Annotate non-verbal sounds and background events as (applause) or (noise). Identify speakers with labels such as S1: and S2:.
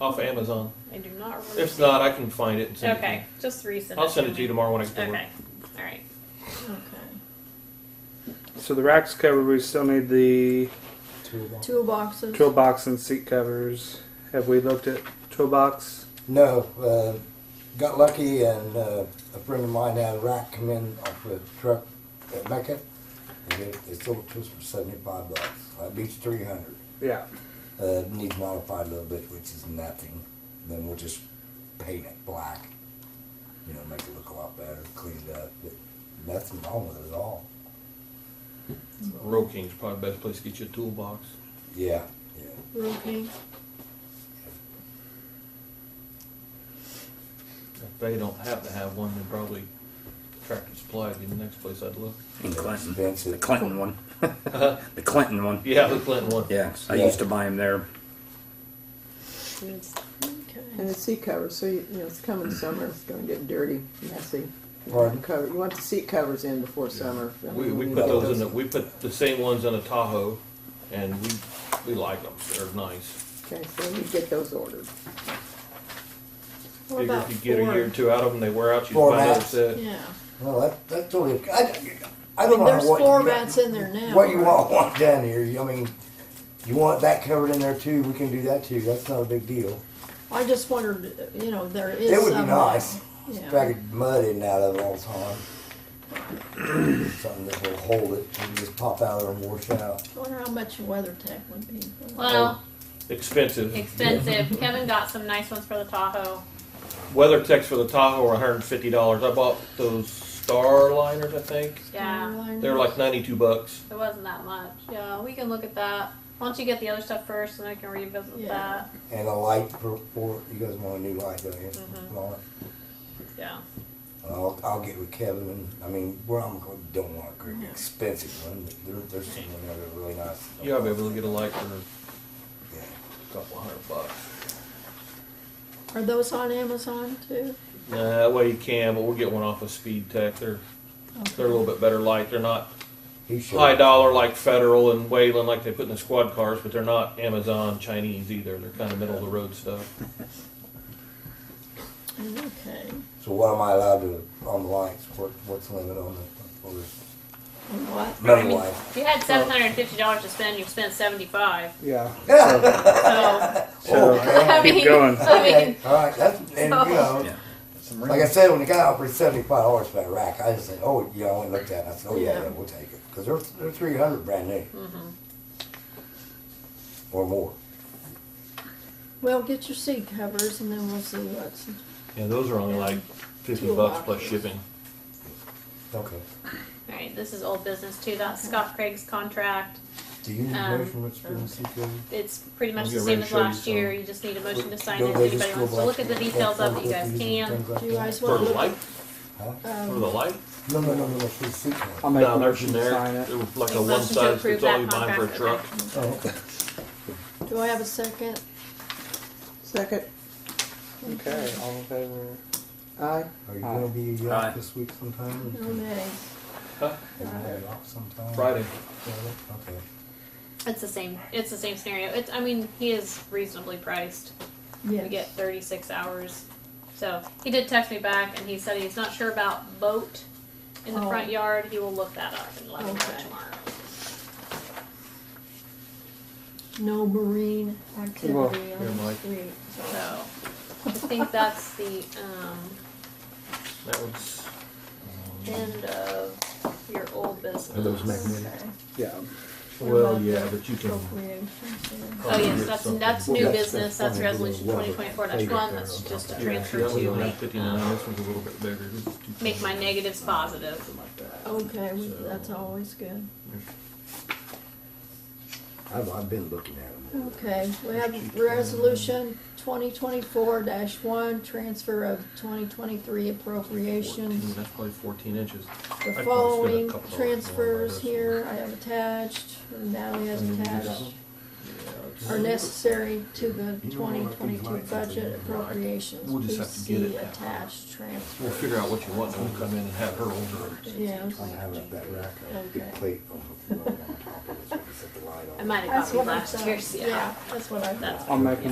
S1: off of Amazon.
S2: I do not remember.
S1: If not, I can find it and send it.
S2: Okay, just
S1: To
S2: recent.
S1: you. I'll send it to you tomorrow when I get to work.
S2: Okay, all right.
S3: Okay.
S4: So the racks covered. We still need the
S5: Toolbox.
S3: Toolboxes.
S4: toolbox and seat covers. Have we looked at toolbox?
S5: No, uh, got lucky and uh, a friend of mine down in Rack come in off the truck at Mecca. And they, they sold it to us for 75 bucks. Uh, I beat 300.
S4: Yeah.
S5: Uh, needs modified a little bit, which is nothing. Then we'll just paint it black. You know, make it look a lot better, clean it up. But nothing wrong with it at all.
S1: Road King's probably the best place to get you a toolbox.
S5: Yeah, yeah.
S3: Roll King.
S1: If they don't have to have one, then probably Tractor Supply would be the next place I'd look.
S6: In Clinton.
S5: Expensive.
S6: The Clinton one. the Clinton one.
S1: Yeah, the Clinton one.
S6: Yeah, I
S5: Yeah.
S6: used to buy them there.
S7: And the seat covers, so you, you know, it's coming summer, it's gonna get dirty, messy. You want,
S5: Pardon?
S7: the cover, you want the seat covers in before summer. I
S1: We,
S7: mean,
S1: we
S7: you
S1: put
S7: know,
S1: those in the, we put the same ones in a Tahoe, and we, we like them, they're nice.
S7: Okay, so you get those ordered.
S3: What
S1: Figure
S3: about
S1: if you get a year or
S3: Ford?
S1: two out of them, they wear out, uh, you
S5: Four
S1: buy another
S5: mats.
S1: set.
S3: Yeah.
S5: Well, that, that's totally. I, I don't know
S3: There's
S5: what
S3: four
S5: you got-
S3: mats in there now.
S5: What you
S3: right?
S5: want, want down here? I mean, you want that covered in there too? We can do that too. That's not a big deal.
S3: I just wondered, you know, there is.
S5: It would be
S3: some-
S5: nice.
S3: Yeah.
S5: If I could mud in and out of it all the time. (clears throat) Something that will hold it and just pop out or wash out.
S3: I wonder how much WeatherTech would be.
S2: Well,
S1: Oh. Expensive. (laughs)
S2: expensive. Kevin got some nice ones for the Tahoe.
S1: Weather techs for the Tahoe are hundred and fifty dollars. I bought those Starliners, I think.
S2: Yeah,
S1: They were like ninety-two bucks.
S2: it wasn't that much. Yeah, we can look at that. Why don't you get the other stuff first, and I can revisit
S3: Yeah.
S2: that.
S5: And a light for, for you guys want a new light, don't you? Well,
S2: Yeah.
S5: I'll, I'll get with Kevin. And, I mean, we're I'm gonna- don't want a great expensive one, but there, there's some that are really nice.
S1: Yeah, I'll be able to get a light for
S5: Yeah.
S1: a couple hundred bucks.
S3: Are those on Amazon too?
S1: Nah, that way you can, but we'll get one off of Speed Tech. They're they're a little bit better light. They're not
S5: He should.
S1: high dollar like Federal and Wayland like they put in the squad cars, but they're not Amazon Chinese either. They're kind of middle of the road stuff.
S3: Okay.
S5: So what am I allowed to on the lights? What what's the limit on the on the
S3: And what?
S5: metal light?
S2: If you had seven hundred and fifty dollars to spend, you spent seventy-five.
S4: Yeah.
S2: So,
S4: (laughs) So
S2: (laughs)
S5: okay.
S2: I
S4: keep
S2: mean,
S4: going.
S2: I mean,
S5: Oh, okay. (laughs) Oh. All right. That's and you know.
S6: Yeah.
S5: Like I said, when the guy offered seventy-five dollars for that rack, I just said, "Oh, yeah." I went and looked at it. I said, "Oh yeah, yeah, we'll take it," because they're they're three hundred brand new or more.
S3: Well, get your seat covers and then we'll see what's.
S1: Yeah, those are only like fifty
S3: Two
S1: bucks plus
S3: boxes.
S1: shipping.
S5: Okay.
S2: all right, this is old business too. That's Scott Craig's contract.
S5: Do you need
S2: Um,
S5: measurements for the CPO?
S2: It's pretty much
S1: I'll
S2: the
S1: get
S2: same
S1: ready
S2: as
S1: to show you
S2: last
S1: some.
S2: year. You just need a motion to sign it.
S5: Don't
S2: If
S5: they just
S2: anybody
S5: go
S2: wants to
S5: black
S2: look at the
S5: and-
S2: details of it, you Uh, guys
S5: and
S2: can.
S5: things like
S3: Do you
S5: that?
S3: guys
S1: For
S3: want
S1: the
S3: to look?
S1: light?
S5: Huh?
S1: For the
S3: Um,
S1: light?
S5: No, no, no, no, no, for the seat
S2: Oh,
S4: I'll
S5: covers.
S4: make
S1: No,
S4: a
S1: they're
S4: motion to
S1: generic.
S4: sign it.
S1: They're like
S2: Make
S1: a
S2: motion
S1: one
S2: to
S1: size
S2: approve
S1: fits all
S2: that
S1: you buy for a
S2: contract,
S1: truck.
S2: okay.
S5: Oh, okay.
S3: do I have a second?
S7: Second,
S4: Okay. All in favor?
S7: aye.
S5: Are you gonna be uh,
S6: Aye.
S5: this week sometime?
S3: No, nay.
S5: Are you gonna be off sometime?
S1: Friday.
S5: Friday? Okay.
S2: It's the same. It's the same scenario. It's. I mean, he is reasonably priced. We get
S3: Yes.
S2: 36 hours. So he did text me back, and he said he's not sure about boat in the
S3: Oh.
S2: front yard. He will look that up and let me know
S3: Okay.
S2: tomorrow.
S3: No marine activity
S4: Well,
S1: here,
S3: on the
S1: Mike.
S3: street. so-
S2: So I think that's the um,
S1: That was
S2: end of your old business.
S3: Okay.
S4: Yeah.
S1: Well, yeah, but you can.
S3: Appropriations,
S2: Oh yes, that's that's new
S5: Well, that's-
S2: business.
S5: that's
S2: That's
S5: fine.
S2: resolution
S5: Well,
S2: twenty twenty four
S5: take it
S2: one.
S5: there
S2: That's
S5: on
S2: just a
S5: top.
S2: transfer
S1: that was
S2: to
S1: only
S2: make,
S1: fifty-nine,
S2: um,
S1: this one's a little bit bigger. This is two-
S2: make my negatives positive.
S3: yeah. Okay, we- that's always good.
S5: I've, I've been looking at them.
S3: Okay, we have resolution twenty twenty-four one, transfer of twenty twenty-three
S1: Fourteen,
S3: appropriations.
S1: that's probably fourteen inches.
S3: The
S1: spend a
S3: following
S1: couple dollars more on
S3: transfers
S1: this.
S3: here I have attached, and Natalie has attached, are necessary to the twenty twenty-two budget appropriations.
S1: We'll just
S3: Please
S1: have to get it
S3: see
S1: that way.
S3: Attached transfer,
S1: We'll figure out what you want, and we'll come in and have her order it.
S3: yeah.
S5: I have that- that rack, a big
S3: Okay.
S5: plate on the floor on top of it, so we can set the light on.
S2: I might have
S3: That's
S2: got
S3: what
S2: me
S3: I
S2: last
S3: thought.
S2: year's. Yeah.
S3: Yeah, that's what I thought.
S4: I'll make a